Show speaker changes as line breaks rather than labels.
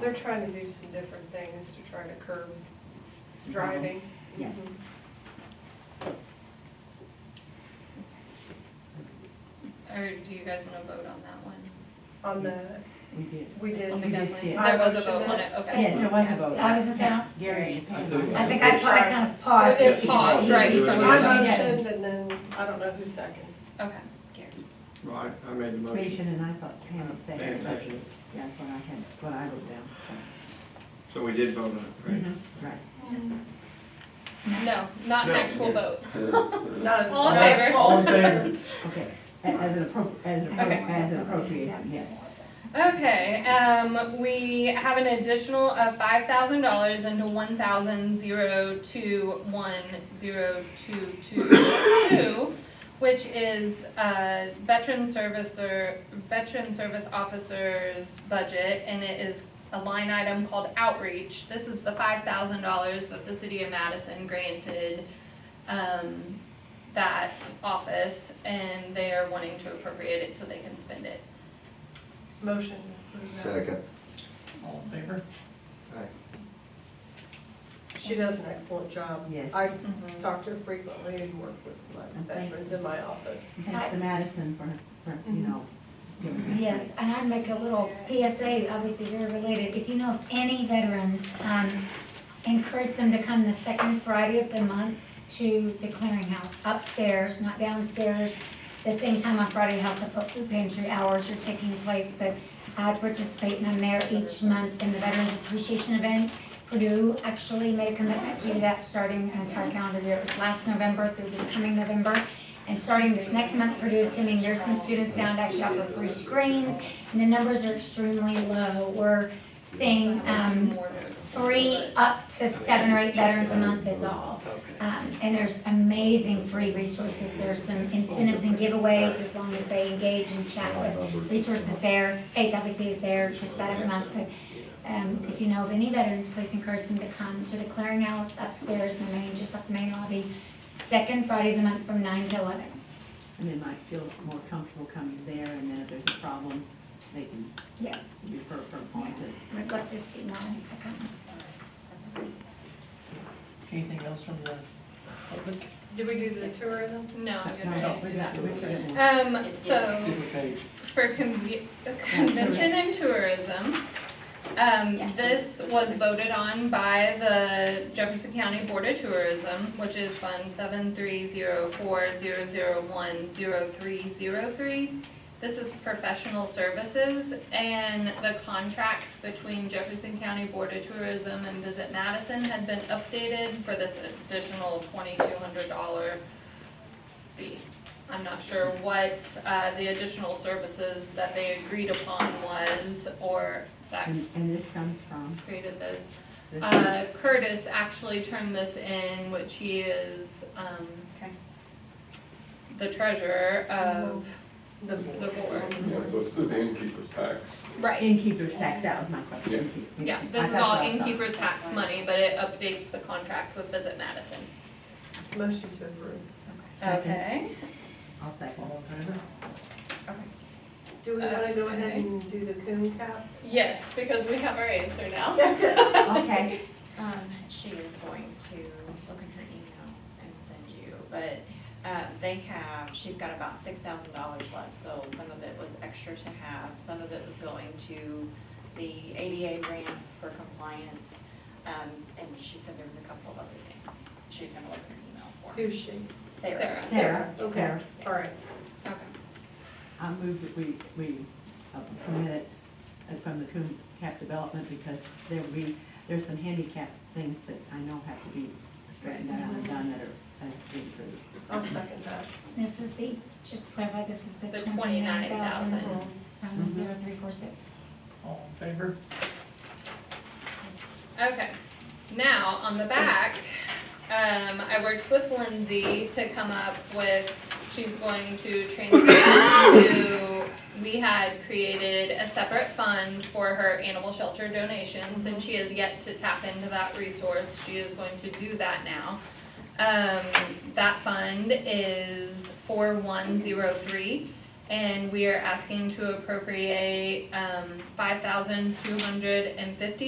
They're trying to do some different things to try to curb driving.
Yes.
Mm-hmm.
Or do you guys wanna vote on that one?
On the,
We did.
we did,
On the
We
gas
just
line?
did.
There was a
I
vote on
motioned
it, okay.
Yes, there was a vote.
I was just saying,
Gary and
I think-
Pam.
I think I, I kind of paused.
It
just because-
paused, right, so
I
we
Yeah.
just,
motioned and then, I don't know who seconded.
okay.
Well, I, I made the motion.
Motion, and I thought Pam had said
Pam
it, but
seconded.
that's what I had, what I wrote down. Mm-hmm.
So we did vote on it, right?
Right.
No, not an
No.
actual vote.
Not a-
All in
not a
favor?
fault.
All in favor?
Okay, A- as an appro, as an,
Okay.
appro- as an appropriation, yes.
Okay, um, we have an additional of five thousand dollars into one thousand zero two one zero two two two, which is, uh, veteran servicer, veteran service officer's budget, and it is a line item called outreach. This is the five thousand dollars that the city of Madison granted, um, that office, and they are wanting to appropriate it so they can spend it.
Motion. to approve that.
Second.
All in favor?
She does an excellent job.
Yes.
I
Mhm.
talk to her frequently and work with my veterans in my office.
And Thanks to Madison for, for, you know, giving that.
Yes, and I'd make a little PSA, obviously very related. If you know of any veterans, um, encourage them to come the second Friday of the month to the clearinghouse upstairs, not downstairs. The same time on Friday, House of Food Pantry hours are taking place, but I participate and I'm there each month in the Veterans Appreciation Event. Purdue actually made a commitment to do that starting an entire calendar year. It was last November through this coming November. And starting this next month, Purdue is sending nursing students down to actually offer free screens. And the numbers are extremely low. We're seeing, um, three up to seven or eight veterans a month is all. Um, and there's amazing free resources, there's some incentives and giveaways as long as they engage and chat with resources there. Faith obviously is there just about every month, but, um, if you know of any veterans, please encourage them to come to the clearinghouse upstairs in the main, just off the main lobby, second Friday of the month from nine to eleven.
And they might feel more comfortable coming there, and then if there's a problem, they can
Yes,
refer for appointed.
we'd love to see Monica come.
Anything else from the public?
Did we do the tourism?
No, I didn't.
No, we got- we got one.
Um, so
Give the page.
for conve- convention and tourism, um, this was voted on by the Jefferson County Board of Tourism, which is Fund seven three zero four zero zero one zero three zero three. This is professional services and the contract between Jefferson County Board of Tourism and Visit Madison had been updated for this additional twenty-two hundred dollar fee. I'm not sure what, uh, the additional services that they agreed upon was, or that
And, and this comes from?
created this.
this-
Uh, Curtis actually turned this in, which he is, um, the treasurer of
The
the board. Mm-hmm.
Yeah, so it's the innkeeper's tax.
Right,
Innkeeper's tax, that was my question.
Yeah.
Innkeeper.
yeah,
Mm-hmm. I-
this is
that's
all
what I thought.
innkeeper's tax money, but it updates the contract with Visit Madison.
Motion to approve.
Second.
Okay,
I'll second.
All in favor?
Do we want to go ahead and do the coon cap?
yes, because we have our answer now.
Okay,
Um, she is going to look in her email and send you, but, uh, they have, she's got about six thousand dollars left, so some of it was extra to have, some of it was going to the ADA grant for compliance, um, and she said there was a couple of other things she's gonna look in her email for.
Who's she?
Sarah.
Sarah,
Okay.
Sarah,
All right.
Okay,
I move that we, we uh, permit it uh, from the Coon Cap Development because there will be, there's some handicap things that I know have to be straightened out and done that are, that have to be improved.
I'll second that.
This is the, just to clarify, this is the
The
twenty-nine thousand,
29,000.
um, zero three four six.
All in favor?
okay. Now, on the back, um, I worked with Lindsay to come up with, she's going to transition to, we had created a separate fund for her animal shelter donations, and she has yet to tap into that resource, she is going to do that now. Um, that fund is four one zero three, And we are asking to appropriate, um, five thousand two hundred and fifty